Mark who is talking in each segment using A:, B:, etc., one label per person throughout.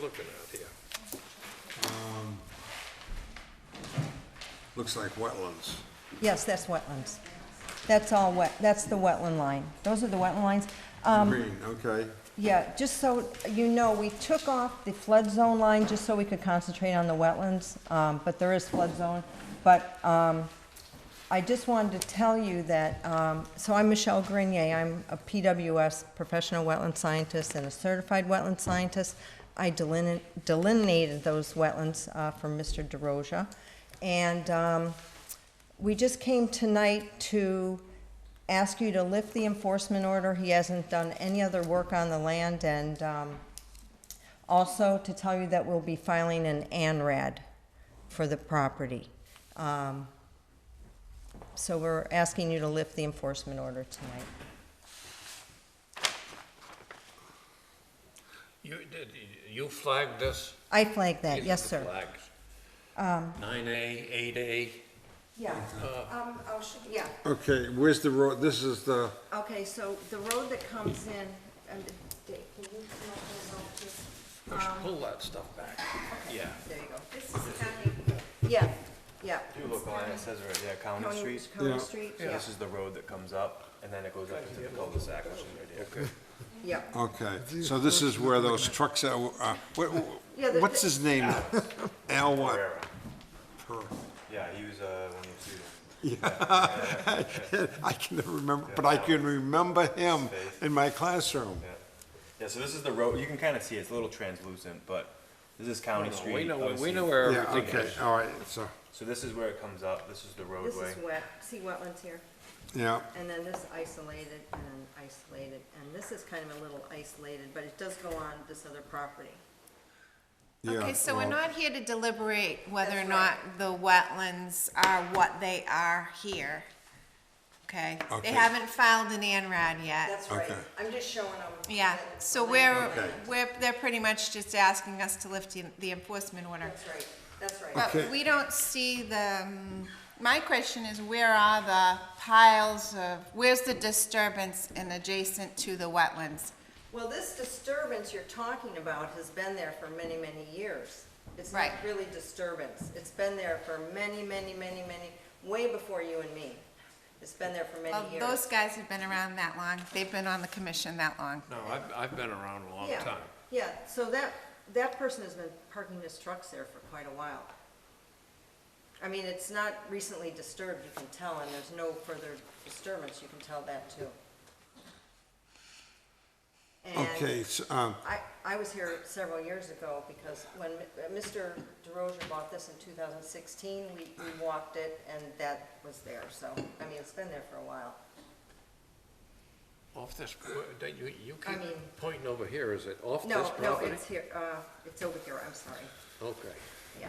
A: looking at here?
B: Looks like wetlands.
C: Yes, that's wetlands. That's all wet, that's the wetland line. Those are the wetland lines. Um,
B: Green, okay.
C: yeah, just so you know, we took off the flood zone line just so we could concentrate on the wetlands, um, but there is flood zone. But, um, I just wanted to tell you that, um, so I'm Michelle Grenier. I'm a PWS professional wetland scientist and a certified wetland scientist. I delin- delineated those wetlands, uh, for Mr. DeRosa. And, um, we just came tonight to ask you to lift the enforcement order. He hasn't done any other work on the land, and um, also to tell you that we'll be filing an ANRAD for the property. Um, So we're asking you to lift the enforcement order tonight.
A: You, did, you flagged this?
C: I flagged that,
A: These are
C: Uh, yes,
A: the
C: sir. Um,
A: flags. Nine A, eight A,
C: Yeah, um, I'll show- yeah.
B: Okay, where's the road, this is the,
C: Okay, so the road that comes in, um, Dave, can you come up with all this?
A: push,
C: um,
A: pull that stuff back, yeah.
C: There you go. This is County, yeah, yeah.
D: Do look on it, it says right there, County
C: County-
D: Street.
C: County
B: Yeah.
C: Street,
D: So
C: yeah,
D: this is the road that comes up, and then it goes up into the cul-de-sac, which is right here.
C: yeah.
B: okay, so this is where those trucks are, uh, wh-
C: Yeah, the-
B: wh- what's his name? Al what?
D: Pereira. Yeah, he was, uh, one of your students.
B: I can never remember, but I can remember him in my classroom.
D: Yeah. Yeah, so this is the road, you can kind of see, it. it's a little translucent, but this is County Street.
A: Oh, We know, we
D: obviously.
A: know where
B: Yeah,
A: everything
B: okay,
A: is.
B: all right, so,
D: So this is where it comes up, this is the
C: This
D: roadway.
C: is wet, see wetlands here,
B: yeah,
C: and then this isolated, and then isolated, and this is kind of a little isolated, but it does go on this other property.
B: yeah.
E: Okay, so we're
B: well,
E: not here to deliberate whether or
C: Uh, That's
E: not
C: right.
E: the wetlands are what they are here. Okay,
B: Okay.
E: they haven't filed an ANRAD yet.
C: That's right,
B: Okay.
C: I'm just showing them.
E: Yeah,
C: that it's
E: so
C: the
E: we're,
C: land.
B: Okay.
E: we're, they're pretty much just asking us to lift the- the enforcement order.
C: That's right, that's right.
E: But we don't see the, um, my question is where are the piles of, where's the disturbance and adjacent to the wetlands?
C: Well, this disturbance you're talking about has been there for many, many years. It's not
E: Right.
C: really disturbance. It's been there for many, many, many, many, way before you and me. It's been there for
E: Well,
C: many years.
E: those guys have been around that long, they've been on the commission that long.
A: No, I've, I've been around a long
C: Yeah,
A: time.
C: Yeah, so that, that person has been parking his trucks there for quite a while. I mean, it's not recently disturbed, you can tell, and there's no further disturbance, you can tell that too. And
B: Okay, so, um,
C: I, I was here several years ago because when Mi- uh, Mr. DeRozier bought this in 2016, we, we walked it and that was there, so, I mean, it's been there for a while.
A: Off this, that you, you
C: I
A: keep
C: mean-
A: pointing over here, is it off this
C: No,
A: property?
C: no, it's here, uh, it's over here, I'm sorry,
A: Okay.
C: yeah.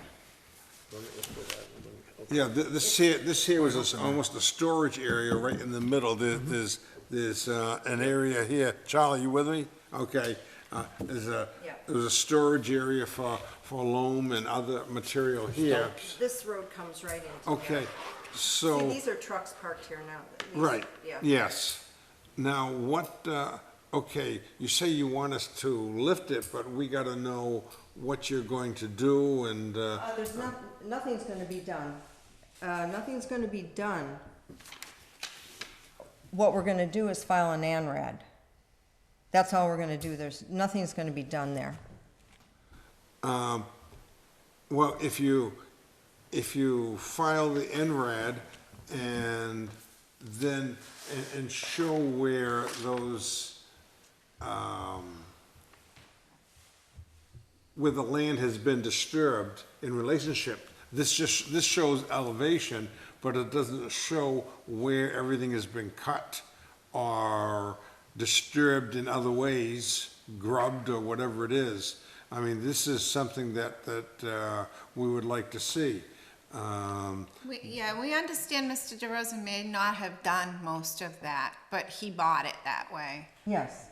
A: Let me, let's go back. Let me- okay.
B: Yeah, th- this here, this here was a s- almost a storage area right in the middle. There- There's, there's uh, an area here. Charlie, you with me? Okay. Uh, There's a,
C: Yeah.
B: there's a storage area for, for loam and other material here.
C: This road comes right into here.
B: Okay,
C: See,
B: so,
C: these are trucks parked here now. These-
B: right,
C: Yeah,
B: yes. Now, what, uh, okay, you say you want us to lift it, but we gotta know what you're going to do and, uh,
C: uh, there's not, nothing's gonna be done, uh, nothing's gonna be done. What we're gonna do is file an ANRAD. That's all we're gonna do, there's, nothing's gonna be done there.
B: Well, if you, if you file the NRAD and then, and, and show where those, um, where the land has been disturbed in relationship, this just, this shows elevation, but it doesn't show where everything has been cut or disturbed in other ways, grubbed or whatever it is. I mean, this is something that, that, uh, we would like to see. Um,
E: We, yeah, we understand Mr. DeRosa may not have done most of that, but he bought it that way.
C: Yes.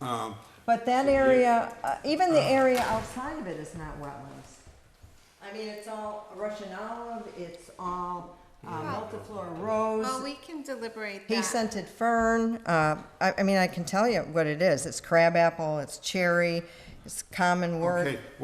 C: But that area, uh, even the area outside of it is not wetlands. I mean, it's all Russian olive, it's all uh, multiflora
E: Well,
C: rose,
E: we can deliberate that.
C: pea scented fern. Uh, I, I mean, I can tell you what it is. It's crabapple, it's cherry, it's common wort.
B: okay,